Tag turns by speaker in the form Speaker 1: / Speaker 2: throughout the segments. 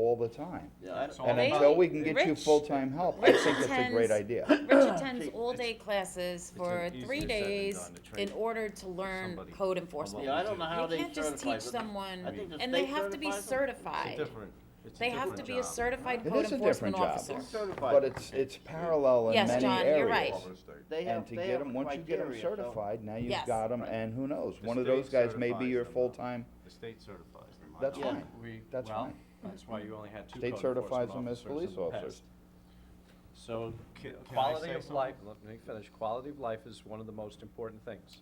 Speaker 1: all the time.
Speaker 2: Yeah, I-
Speaker 3: So-
Speaker 1: And
Speaker 3: They-
Speaker 1: until we can get you
Speaker 4: Rich-
Speaker 1: full-time help, I
Speaker 4: Rich
Speaker 1: think that's a
Speaker 4: attends-
Speaker 1: great idea.
Speaker 4: Rich attends all-day
Speaker 3: it's
Speaker 4: classes for
Speaker 3: easier
Speaker 4: three
Speaker 3: said than
Speaker 4: days
Speaker 3: done to train
Speaker 4: in order to learn
Speaker 3: somebody
Speaker 4: code
Speaker 2: Yeah,
Speaker 4: enforcement.
Speaker 2: I don't know how
Speaker 4: You
Speaker 2: they
Speaker 4: can't just
Speaker 2: certify
Speaker 4: teach
Speaker 2: it.
Speaker 4: someone,
Speaker 2: I think the
Speaker 4: and they
Speaker 2: state
Speaker 4: have to be
Speaker 2: certifies them.
Speaker 3: It's a
Speaker 4: certified.
Speaker 3: different, it's a different job.
Speaker 4: They have to be a certified
Speaker 1: It
Speaker 4: code
Speaker 1: is a different
Speaker 4: enforcement
Speaker 1: job.
Speaker 4: officer.
Speaker 2: It's certified.
Speaker 1: But it's, it's parallel in
Speaker 4: Yes,
Speaker 1: many
Speaker 4: John,
Speaker 1: areas.
Speaker 4: you're right.
Speaker 2: They
Speaker 1: And
Speaker 2: have-
Speaker 1: to
Speaker 2: they
Speaker 1: get
Speaker 2: have
Speaker 1: them, once you get them
Speaker 2: criteria, so-
Speaker 1: certified, now you've
Speaker 4: Yes.
Speaker 1: got them, and who knows?
Speaker 3: The
Speaker 1: One of those
Speaker 3: state
Speaker 1: guys may be
Speaker 3: certifies
Speaker 1: your
Speaker 3: them.
Speaker 1: full-time,
Speaker 3: The state certifies them. I
Speaker 1: that's
Speaker 3: know.
Speaker 2: Yeah.
Speaker 1: fine.
Speaker 5: We-
Speaker 1: That's
Speaker 5: well,
Speaker 1: fine.
Speaker 5: That's why you only had two
Speaker 1: State
Speaker 5: code
Speaker 1: certifies
Speaker 5: enforcement
Speaker 1: them as
Speaker 5: officers in
Speaker 1: police
Speaker 5: the
Speaker 1: officers.
Speaker 5: past. So, ca- can I
Speaker 6: Quality
Speaker 5: say
Speaker 6: of
Speaker 5: something?
Speaker 6: life, let me finish, quality of life is one of the most important things.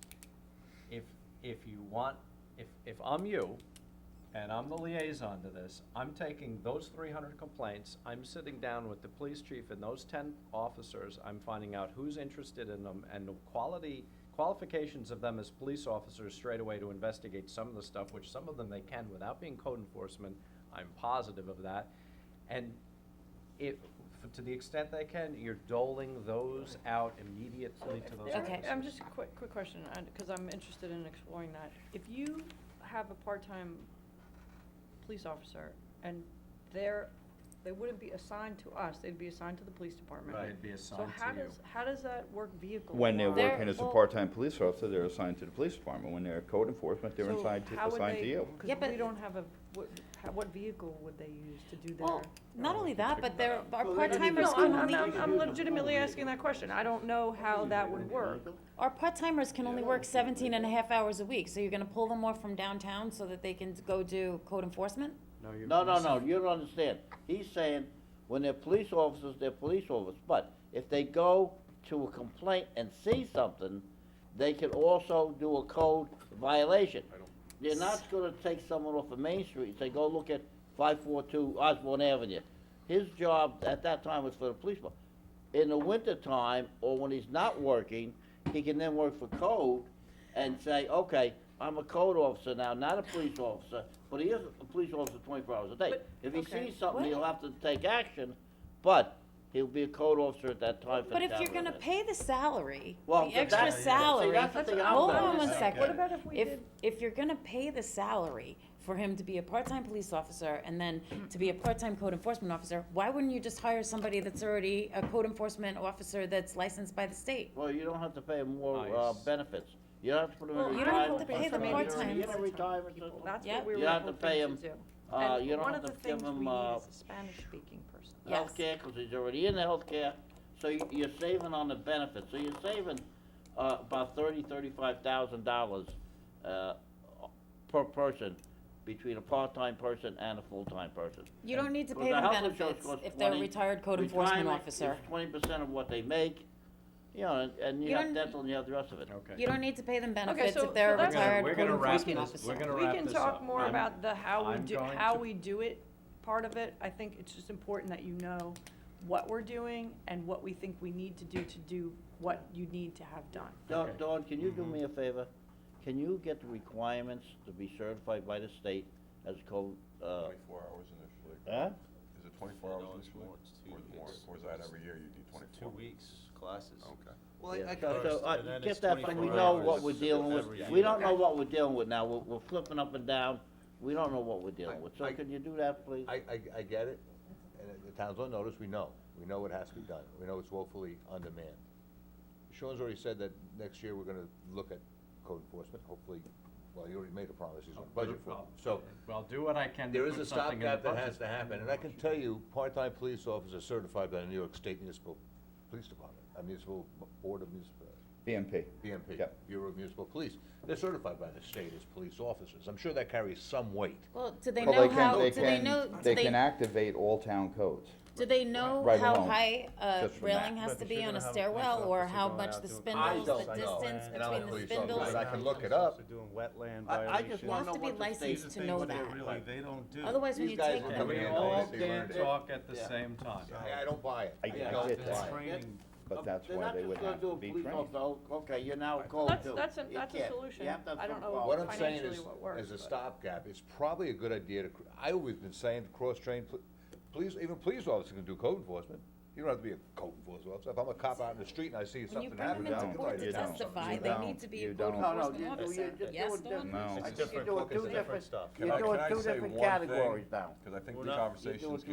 Speaker 6: If, if you want, if, if I'm you, and I'm the liaison to this, I'm taking those three hundred complaints, I'm sitting down with the police chief and those ten officers, I'm finding out who's interested in them, and the quality, qualifications of them as police officers straight away to investigate some of the stuff, which some of them they can without being code enforcement, I'm positive of that. And if, f- to the extent they can, you're doling those out immediately to those
Speaker 4: Okay.
Speaker 6: officers.
Speaker 7: I'm just, quick, quick question, because I'm interested in exploring that. If you have a part-time police officer and they're, they wouldn't be assigned to us, they'd be assigned to the police department.
Speaker 6: Right, it'd be assigned
Speaker 7: So how
Speaker 6: to you.
Speaker 7: does, how does that work vehicle?
Speaker 1: When they're
Speaker 4: They're-
Speaker 1: working as a
Speaker 4: well-
Speaker 1: part-time police officer, they're assigned to the police department. When they're code enforcement, they're assigned to, assigned to you.
Speaker 4: Yeah,
Speaker 7: Because
Speaker 4: but-
Speaker 7: we don't have a, what, how- what vehicle would they use to do their?
Speaker 4: Well, not only that, but there are
Speaker 2: Well, they don't even
Speaker 4: part-timers
Speaker 2: know.
Speaker 7: No,
Speaker 4: who
Speaker 7: I'm,
Speaker 4: only,
Speaker 7: I'm, I'm legitimately asking that question. I don't know how that would work.
Speaker 4: our part-timers can only work 17 and a half hours a week, so you're gonna pull them more from downtown so that they can go do code enforcement?
Speaker 5: No, you're
Speaker 2: No, no, no,
Speaker 5: missing-
Speaker 2: you don't understand. He's saying, when they're police officers, they're police officers, but if they go to a complaint and see something, they can also do a code violation. They're not gonna take someone off of Main Street and say, go look at five four two Osborne Avenue. His job at that time was for the police. department. In the wintertime, or when he's not working, he can then work for code and say, okay, I'm a code officer now, not a police officer, but he is a police officer twenty-four hours a day.
Speaker 7: But-
Speaker 2: If he
Speaker 7: okay.
Speaker 2: sees something,
Speaker 4: What?
Speaker 2: he'll have to take action, but he'll be a code officer at that time for the
Speaker 4: But if
Speaker 2: town
Speaker 4: you're gonna
Speaker 2: residents.
Speaker 4: pay the salary,
Speaker 2: Well,
Speaker 4: the
Speaker 2: but
Speaker 4: extra
Speaker 2: that's- see,
Speaker 4: salary,
Speaker 2: that's the thing I'm
Speaker 4: hold
Speaker 2: gonna
Speaker 4: on one
Speaker 2: say.
Speaker 4: second.
Speaker 7: What about if we
Speaker 4: If,
Speaker 7: did?
Speaker 4: if you're gonna pay the salary for him to be a part-time police officer and then to be a part-time code enforcement officer, why wouldn't you just hire somebody that's already a code enforcement officer that's licensed by the state?
Speaker 2: Well, you don't have to pay him more, uh,
Speaker 6: Nice.
Speaker 2: benefits. You don't have to put him in
Speaker 7: Well,
Speaker 2: retirement. Uh,
Speaker 4: you don't have to pay
Speaker 2: system.
Speaker 4: them
Speaker 2: You don't-
Speaker 4: part-time.
Speaker 2: You don't retirement
Speaker 7: People,
Speaker 2: system.
Speaker 7: That's
Speaker 4: Yep.
Speaker 7: what we
Speaker 2: You
Speaker 7: were
Speaker 2: have to
Speaker 7: hoping
Speaker 2: pay
Speaker 7: to
Speaker 2: 'em,
Speaker 7: do.
Speaker 2: uh,
Speaker 7: And
Speaker 2: you don't have to give
Speaker 7: One of the things
Speaker 2: them,
Speaker 7: we
Speaker 2: uh,
Speaker 7: need is a Spanish-speaking person.
Speaker 4: Yes.
Speaker 2: healthcare, cause he's already in the healthcare, so you, you're saving on the benefits, so you're saving, uh, about thirty, thirty-five thousand dollars, uh, per person, between a part-time person and a full-time person.
Speaker 4: You don't need to
Speaker 2: Well,
Speaker 4: pay
Speaker 2: the
Speaker 4: them
Speaker 2: health insurance
Speaker 4: benefits
Speaker 2: costs
Speaker 4: if they're a
Speaker 2: 20,
Speaker 4: retired code enforcement officer.
Speaker 2: Twenty percent of what they make, you know, and, and you
Speaker 4: You
Speaker 2: have
Speaker 4: don't-
Speaker 2: dental, and you have the rest of it.
Speaker 6: Okay.
Speaker 4: You don't need to pay them benefits
Speaker 7: so-
Speaker 4: if they're
Speaker 7: so
Speaker 4: a
Speaker 7: that's-
Speaker 4: retired
Speaker 6: We're
Speaker 4: code
Speaker 6: gonna wrap
Speaker 4: enforcement
Speaker 6: this-
Speaker 4: officer.
Speaker 6: we're gonna
Speaker 7: We
Speaker 6: wrap
Speaker 7: can
Speaker 6: this
Speaker 7: talk
Speaker 6: up.
Speaker 7: more
Speaker 6: I'm-
Speaker 7: about the how we
Speaker 6: I'm
Speaker 7: do,
Speaker 6: going
Speaker 7: how
Speaker 6: to-
Speaker 7: we do it part of it. I think it's just important that you know what we're doing and what we think we need to do to do what you need to have done.
Speaker 2: Dawn,
Speaker 6: Okay.
Speaker 2: Dawn, can you do me a favor? Can you get the requirements to be certified by the state as code, uh,
Speaker 8: Twenty-four hours initially.
Speaker 2: huh?
Speaker 8: Is it twenty-four hours
Speaker 3: No, it's
Speaker 8: initially?
Speaker 3: more, it's two-
Speaker 8: Or is it more,
Speaker 3: it's-
Speaker 8: or is that
Speaker 3: it's-
Speaker 8: every year you do
Speaker 3: It's two
Speaker 8: twenty-four?
Speaker 3: weeks classes.
Speaker 8: Okay.
Speaker 5: Well, I-
Speaker 2: Yeah,
Speaker 5: I
Speaker 2: so-
Speaker 5: first,
Speaker 2: so, uh,
Speaker 5: and then
Speaker 2: get
Speaker 5: it's
Speaker 2: that, so we
Speaker 5: 24
Speaker 2: know what
Speaker 5: hours
Speaker 2: we're dealing with,
Speaker 5: every
Speaker 2: we
Speaker 5: year.
Speaker 2: don't know what we're dealing with now, we're, we're flipping up and down, we don't know what we're
Speaker 9: I-
Speaker 2: dealing with, so
Speaker 9: I-
Speaker 2: can you do that, please?
Speaker 9: I, I, I get it, and the town's on notice, we know, we know it has to be done, we know it's woefully on demand. Sean's already said that next year we're gonna look at code enforcement, hopefully, well, he already made a promise, he's
Speaker 6: Oh,
Speaker 9: gonna budget for it, so.
Speaker 6: Well, do what I can to
Speaker 9: There is a
Speaker 6: put something in the
Speaker 9: stopgap that has
Speaker 6: budget.
Speaker 9: to happen, and I can tell you, part-time police officers certified by the New York State Municipal Police Department, a municipal board of municipal,
Speaker 1: BMP.
Speaker 9: BMP,
Speaker 1: Yep.
Speaker 9: Bureau of Municipal Police, they're certified by the state as police officers, I'm sure that carries some weight.
Speaker 4: Well, do they
Speaker 1: Well,
Speaker 4: know
Speaker 1: can-
Speaker 4: how,
Speaker 1: they
Speaker 4: do they
Speaker 1: can-
Speaker 4: know, do
Speaker 1: They can activate all town codes.
Speaker 4: Do they know
Speaker 1: Right
Speaker 4: how
Speaker 1: along,
Speaker 4: high a
Speaker 1: just from
Speaker 4: railing
Speaker 1: that.
Speaker 4: has
Speaker 5: But
Speaker 4: to
Speaker 5: if you're
Speaker 4: be on
Speaker 5: gonna
Speaker 4: a
Speaker 5: have a
Speaker 4: stairwell,
Speaker 5: police
Speaker 4: or
Speaker 5: officer
Speaker 4: how
Speaker 5: going
Speaker 4: much
Speaker 5: out
Speaker 4: the
Speaker 5: doing-
Speaker 4: spindles,
Speaker 9: don't
Speaker 4: the
Speaker 9: know,
Speaker 4: distance
Speaker 9: and I'm a
Speaker 4: between the
Speaker 9: police officer,
Speaker 4: spindles?
Speaker 9: but I can look it
Speaker 5: They're
Speaker 9: up.
Speaker 5: doing wetland
Speaker 2: I- I just
Speaker 5: violations.
Speaker 4: You
Speaker 2: wanna
Speaker 4: have to
Speaker 2: know
Speaker 4: be
Speaker 2: what the state-
Speaker 5: These are
Speaker 4: licensed to
Speaker 5: things
Speaker 4: know
Speaker 5: that
Speaker 4: that.
Speaker 5: really, they don't do.
Speaker 4: Otherwise, when
Speaker 9: These
Speaker 4: you
Speaker 9: guys
Speaker 4: take
Speaker 9: will
Speaker 4: them.
Speaker 9: come in
Speaker 6: We
Speaker 9: and
Speaker 6: all
Speaker 9: they- they learned
Speaker 6: can't
Speaker 9: it.
Speaker 6: talk at the
Speaker 2: Yeah.
Speaker 6: same time.
Speaker 9: I, I don't buy it.
Speaker 1: I- I
Speaker 9: don't
Speaker 1: get
Speaker 9: buy
Speaker 1: that.
Speaker 9: it.
Speaker 5: Training,
Speaker 1: But that's
Speaker 2: um, They're
Speaker 1: why
Speaker 2: not
Speaker 1: they
Speaker 2: just
Speaker 1: would
Speaker 2: gonna
Speaker 1: have
Speaker 2: do
Speaker 1: to
Speaker 2: a
Speaker 1: be
Speaker 2: police
Speaker 1: trained.
Speaker 2: officer, "Oh, Okay, you're now a code
Speaker 7: That's,
Speaker 2: too.
Speaker 7: that's, a-
Speaker 2: You
Speaker 7: that's a
Speaker 2: can't.
Speaker 7: solution.
Speaker 2: You have to have
Speaker 7: I don't
Speaker 2: some
Speaker 7: know
Speaker 2: quality.
Speaker 9: What I'm saying
Speaker 7: financially
Speaker 9: is,
Speaker 7: what works.
Speaker 9: as a
Speaker 7: but-
Speaker 9: stopgap, it's probably a good idea to, cr- I always been saying to cross-train, pl- police, even police officers can do code enforcement. You don't have to be a code enforcement officer. If I'm a cop out in the street and I see
Speaker 4: When you
Speaker 9: something
Speaker 4: bring them
Speaker 9: happening, I
Speaker 4: into
Speaker 1: down.
Speaker 9: can tell
Speaker 4: court
Speaker 9: you.
Speaker 4: to
Speaker 1: You don't.
Speaker 4: testify,
Speaker 1: You
Speaker 4: they
Speaker 1: don't.
Speaker 4: need to be
Speaker 1: You
Speaker 4: a code
Speaker 1: don't. No,
Speaker 2: no,
Speaker 4: enforcement
Speaker 2: you- you-
Speaker 4: officer.
Speaker 2: you're
Speaker 4: Yes,
Speaker 2: doing
Speaker 4: Dawn?
Speaker 1: No.
Speaker 2: I
Speaker 8: It's
Speaker 2: think
Speaker 8: different
Speaker 2: you're doing
Speaker 8: focus,
Speaker 2: two
Speaker 8: it's different
Speaker 2: different-
Speaker 8: stuff.
Speaker 2: You're doing two different categories now.
Speaker 8: Because I think the
Speaker 2: We're not- you're doing
Speaker 8: conversation's